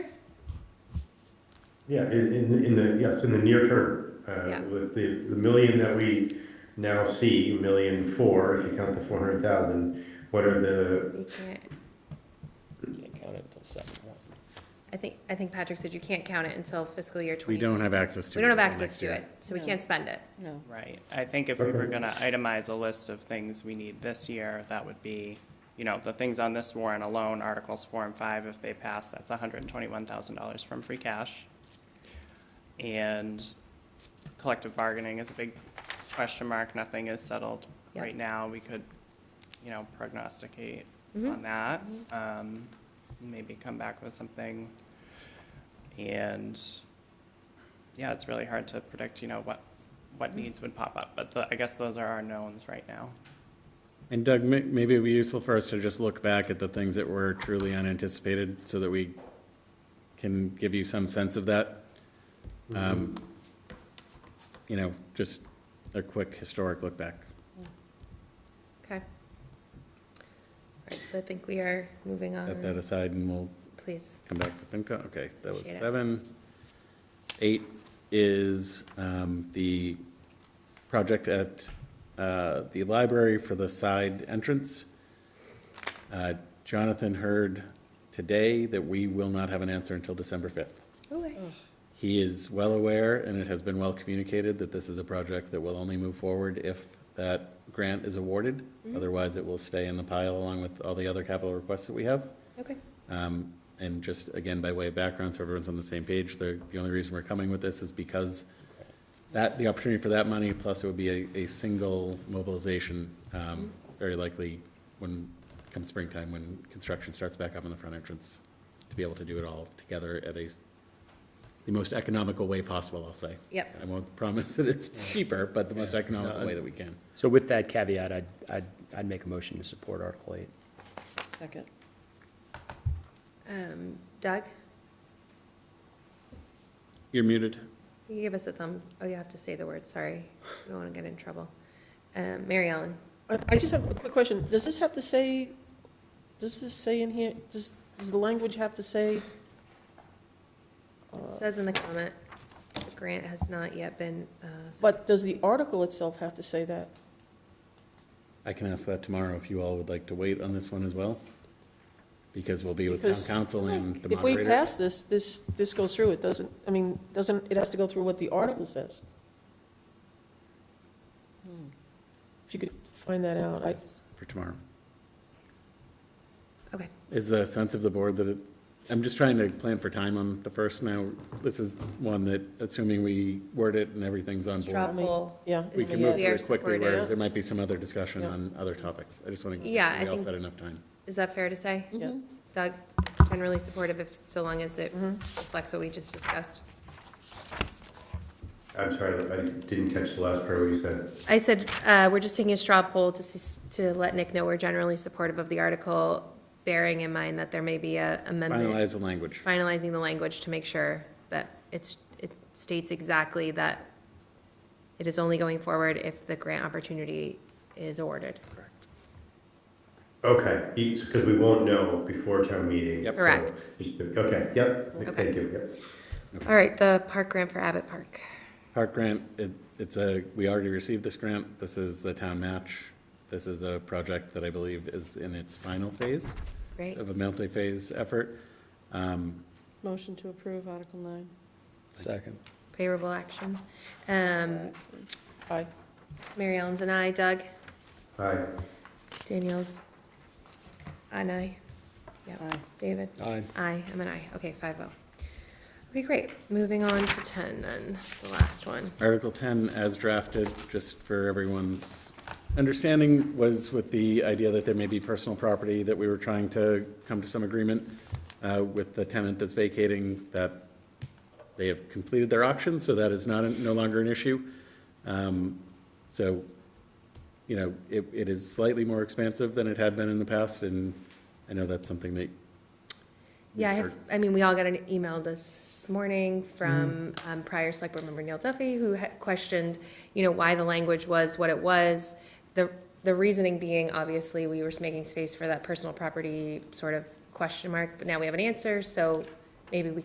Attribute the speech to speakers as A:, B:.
A: Yeah, in, in, in the, yes, in the near term,
B: Yeah.
A: uh, with the, the million that we now see, million four, if you count the four hundred thousand, what are the,
B: You can't,
C: Can't count it until seven.
B: I think, I think Patrick said you can't count it until fiscal year
D: We
B: twenty.
D: don't have access to
B: We
D: it.
B: don't have
D: until
B: access
D: next
B: to
D: year.
B: it, so we
E: No.
B: can't spend it.
E: No.
C: Right, I think if we were
A: Okay.
C: gonna itemize a list of things we need this year, that would be, you know, the things on this warrant alone, Articles four and five, if they pass, that's hundred and twenty-one thousand dollars from free cash. And collective bargaining is a big question mark, nothing is settled
B: Yep.
C: right now, we could, you know, prognosticate
B: Mhm.
C: on that. Um, maybe come back with something. And, yeah, it's really hard to predict, you know, what, what needs would pop up, but the- I guess those are our knowns right now.
D: And Doug, may- maybe it'd be useful for us to just look back at the things that were truly unanticipated so that we can give you some sense of that. Um,
B: Mm-hmm.
D: You know, just a quick historic look back.
B: Okay. All right, so I think we are moving
D: Set that
B: on,
D: aside and we'll
B: please.
D: come back to FinCom. Okay, that was
B: Appreciate it.
D: seven. Eight is um, the project at uh, the library for the side entrance. Uh, Jonathan heard today that we will not have an answer until December 5th.
B: Ooh, I-
D: He is well aware, and it has been well communicated, that this is a project that will only move forward if that grant is awarded.
B: Mm-hmm.
D: Otherwise, it will stay in the pile along with all the other capital requests that we have.
B: Okay,
D: Um, And just, again, by way of background, so everyone's on the same page, the, the only reason we're coming with this is because that, the opportunity for that money, plus it would be a, a single mobilization, um, very likely when, come springtime, when construction starts back up on the front entrance, to be able to do it all together at a, s- the most economical way possible, I'll say.
B: yep,
D: I won't promise that it's cheaper, but the most economical
F: No,
D: way that we can.
F: So with that caveat, I'd, I'd, I'd make a motion to support Article eight.
E: Second.
B: um, Doug,
D: You're muted.
B: you can give us a thumbs, oh, you have to say the word, sorry, I don't want to get in trouble. Um, Mary Ellen,
E: I I just have a quick question. Does this have to say, does this say in here, does, does the language have to say?
B: it
E: uh,
B: says in the comment, the grant has not yet been, uh. so-
E: But does the article itself have to say that?
D: I can ask that tomorrow if you all would like to wait on this one as well, because we'll be with town
E: Because,
D: council and the
E: If we
D: moderator.
E: pass this, this, this goes through, it doesn't, I mean, doesn't, it has to go through what the article says. Hmm. If you could find that out, I,
D: For tomorrow.
B: Okay.
D: Is the sense of the board that it, I'm just trying to plan for time on the first now. This is one that, assuming we word it and everything's on board,
B: Straw poll.
E: yeah.
D: we
B: is
D: can move
B: we are
D: through it quickly,
B: supportive.
D: whereas there might be some other discussion
E: Yeah.
D: on other topics. I just want to, we
B: Yeah, I
D: all
B: think-
D: set enough time.
B: Is that fair to say?
E: Yeah.
B: Doug, generally supportive if, so long as it
E: Mhm.
B: reflects what we just discussed.
A: I'm sorry, I didn't catch the last part of what you said.
B: I said, uh, we're just taking a straw poll to, s- to let Nick know we're generally supportive of the article, bearing in mind that there may be a amendment,
D: Finalize the language.
B: finalizing the language to make sure that it's, it states exactly that it is only going forward if the grant opportunity is awarded.
A: Okay, because we won't know before town meeting.
D: Yep.
A: so
B: Correct.
A: it's- Okay, yep,
B: Okay.
A: thank you, yep.
B: All right, the park grant for Abbott Park.
D: Park grant, it, it's a, we already received this grant. This is the town match. This is a project that I believe is in its final phase
B: Great,
D: of a multi-phase effort. Um,
E: Motion to approve Article 9.
F: Second.
B: favorable action. Um,
E: Aye.
B: Mary Ellen's and I, Doug,
A: Hi,
B: Danielle's, and I, yeah,
E: Aye.
B: David.
F: Aye.
B: Aye, I'm an aye. Okay, five oh. Okay, great. Moving on to ten then, the last one.
D: Article ten as drafted, just for everyone's understanding, was with the idea that there may be personal property that we were trying to come to some agreement uh, with the tenant that's vacating, that they have completed their auction, so that is not, no longer an issue. Um, So you know, it, it is slightly more expansive than it had been in the past, and I know that's something that.
B: Yeah, I
D: we've
B: have,
D: heard.
B: I mean, we all got an email this morning from um, prior select board member Neil Duffy, who had questioned, you know, why the language was what it was. The, the reasoning being, obviously, we were just making space for that personal property sort of question mark, but now we have an answer, so maybe we